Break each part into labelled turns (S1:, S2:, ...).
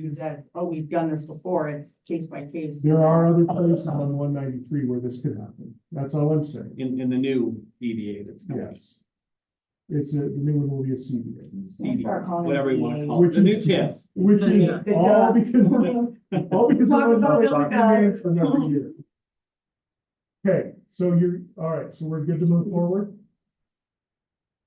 S1: Because that's, oh, we've done this before, it's case by case.
S2: There are other places on one ninety-three where this could happen. That's all I'm saying.
S3: In, in the new EDA that's coming.
S2: Yes. It's a, the new one will be a CBA,
S1: We'll
S3: CD,
S1: start calling E it
S3: Whatever you wanna
S1: EDA.
S3: call it, the new
S2: Which is-
S3: TIF.
S2: which is
S1: Yeah.
S2: all because we're, all because
S1: Talk
S2: we're
S1: about
S2: not
S1: building up.
S2: documenting for another year. Okay, so you're, all right, so we're good to move forward?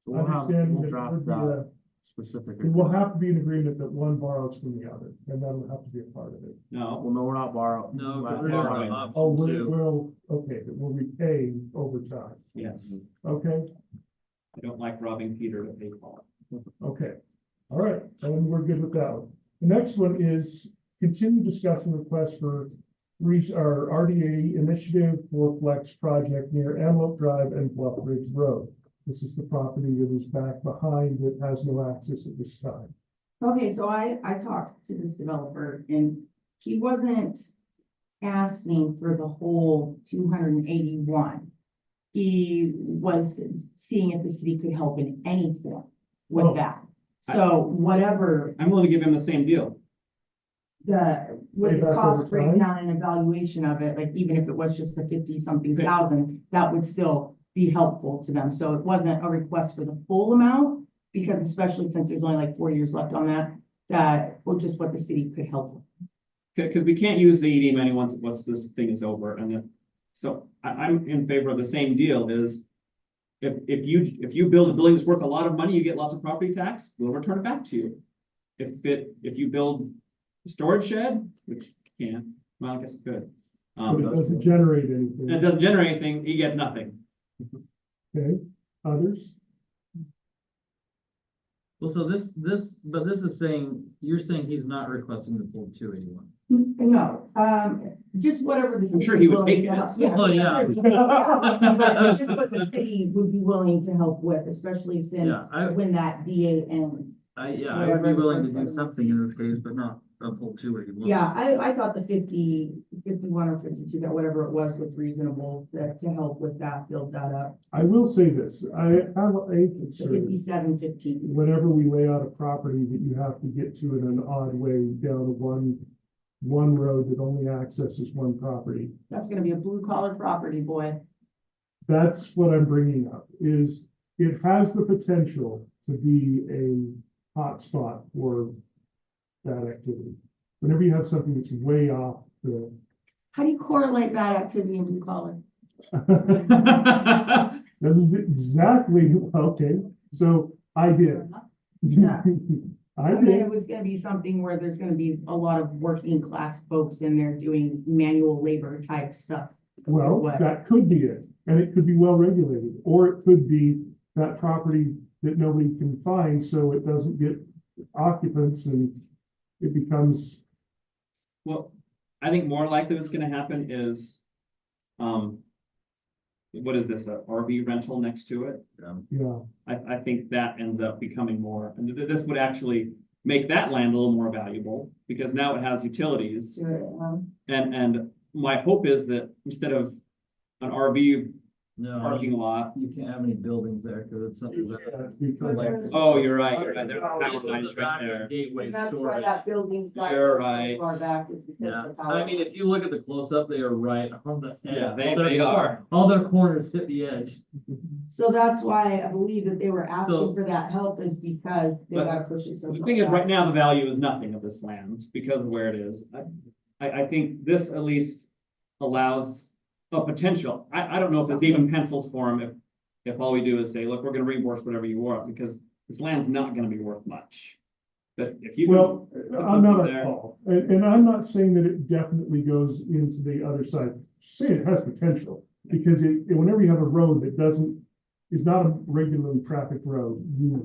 S4: We'll have,
S2: Understand
S4: we'll
S2: that
S4: draft
S2: would be
S4: that
S2: a-
S4: specific.
S2: It will have to be an agreement that one borrows from the other, and that'll have to be a part of it.
S3: No,
S4: Well, no, we're not borrowing.
S5: No,
S4: We're not
S5: we're
S3: not
S4: borrowing.
S5: allowed.
S2: Oh, we
S5: Two.
S2: will, okay, that will repay over time, Mm-hmm.
S3: yes,
S2: okay?
S3: I don't like robbing Peter to pay Paul.
S2: Okay, all right, and we're good with that one. The next one is continue discussion request for re- our RDA initiative for flex project near Antelope Drive and Bluff Ridge Road. This is the property that is back behind that has no access at this time.
S1: Okay, so I, I talked to this developer and he wasn't asking for the whole two hundred and eighty-one. He was seeing if the city could help in any form
S2: Oh.
S1: with that. So whatever
S3: I'm willing to give him the same deal.
S1: the, with the
S2: Payback
S1: cost
S2: over time?
S1: breakdown and evaluation of it, like even if it was just the fifty-something thousand, that would still be helpful to them. So it wasn't a request for the full amount, because especially since there's only like four years left on that, that, well, just what the city could help with.
S3: Cause, 'cause we can't use the ED money once, once this thing is over and then, so I, I'm in favor of the same deal is if, if you, if you build a building that's worth a lot of money, you get lots of property tax, we'll return it back to you. If it, if you build a storage shed, which you can, well, I guess it could.
S2: But it
S3: Um,
S2: doesn't generate
S3: and it
S2: anything,
S3: doesn't generate anything, he gets nothing.
S2: okay? Others?
S5: Well, so this, this, but this is saying, you're saying he's not requesting the full two eighty-one.
S1: Mm, No, um, just whatever the.
S3: I'm sure
S1: city
S3: he would
S1: willing
S3: take
S1: to
S3: it.
S1: help-
S5: Oh, yeah.
S1: But Just what the city would be willing to help with, especially since
S5: Yeah, I-
S1: when that DA and
S5: I, yeah, I would be
S1: Whatever the
S5: willing to do
S1: person-
S5: something in this case, but not a full two eighty-one.
S1: Yeah, I, I thought the 50, 51 or fifty-two, that whatever it was, was reasonable that to help with that, build that up.
S2: I will say this, I have a
S1: The
S2: concern.
S1: Fifty-seven, fifteen.
S2: whenever we lay out a property that you have to get to in an odd way down a one, one road that only accesses one property.
S1: That's gonna be a blue collar property, boy.
S2: That's what I'm bringing up, is it has the potential to be a hotspot for that activity. Whenever you have something that's way off the,
S1: How do you correlate that activity in blue collar?
S2: that's exactly, okay, so I did.
S1: Yeah.
S2: I
S1: I mean,
S2: did,
S1: it was gonna be something where there's gonna be a lot of working class folks in there doing manual labor type stuff.
S2: Well,
S1: What?
S2: that could be it, and it could be well regulated, or it could be that property that nobody can find, so it doesn't get occupants and it becomes,
S3: Well, I think more likely what's gonna happen is, um, what is this, a RV rental next to it?
S2: you know,
S3: I, I think that ends up becoming more, and th- this would actually make that land a little more valuable, because now it has utilities.
S1: So, um,
S3: And, and my hope is that instead of an RV
S5: No,
S3: parking
S5: you
S3: lot,
S5: you can't have any buildings there, cause it's something that.
S2: uh, because
S5: Like-
S3: oh, you're right, you're right, there's power
S5: This is
S3: lines
S5: the
S3: right
S5: back of
S3: there.
S5: Gateway
S1: And that's why
S5: storage.
S1: that building's got
S3: You're
S1: so
S3: right.
S1: Far back is because
S5: Yeah,
S1: of the power.
S5: I mean, if you look at the close-up, they are right on the. edge.
S3: Yeah, they-
S5: All their
S3: they
S5: cor-
S3: are.
S5: All their corners hit the edge.
S1: So that's why I believe that they were
S5: So-
S1: asking for that help is because they
S3: But
S1: gotta push it so.
S3: The
S1: far
S3: thing is,
S1: back.
S3: right now, the value is nothing of this land because of where it is. I- I, I think this at least allows a potential. I, I don't know if it's even pencils for them if, if all we do is say, look, we're gonna reimburse whatever you want, because this land's not gonna be worth much. But if you.
S2: Well, I'm not
S3: there.
S2: at fault, and, and I'm not saying that it definitely goes into the other side, Just saying it has potential. Because it, it- whenever you have a road that doesn't, is not a regularly traffic road, you.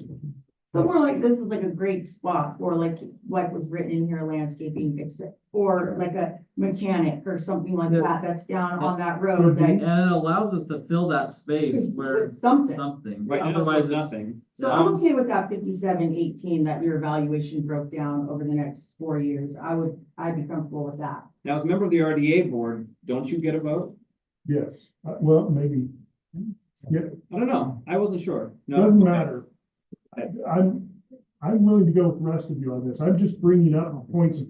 S1: So more like, this is like a great spot for like, what was written in here, landscaping fix it, or like a mechanic or something like
S5: Yeah.
S1: that, that's down
S5: Yeah. Mhm.
S1: on that road
S5: And
S1: that.
S5: it allows us to fill that space
S1: is
S5: where
S1: with Something,
S5: something,
S3: Right now,
S5: otherwise
S3: it's
S5: it's.
S3: nothing.
S1: so I'm okay with that fifty-seven eighteen, that your evaluation broke down over the next four years, I would, I'd be comfortable with that.
S3: Now, as a member of the RDA board, don't you get a vote?
S2: Yes, Uh, well, maybe,
S3: I don't know. I wasn't sure. No.
S2: Doesn't matter. I, I'm, I'm willing to go with the rest of you on this. I'm just bringing up points of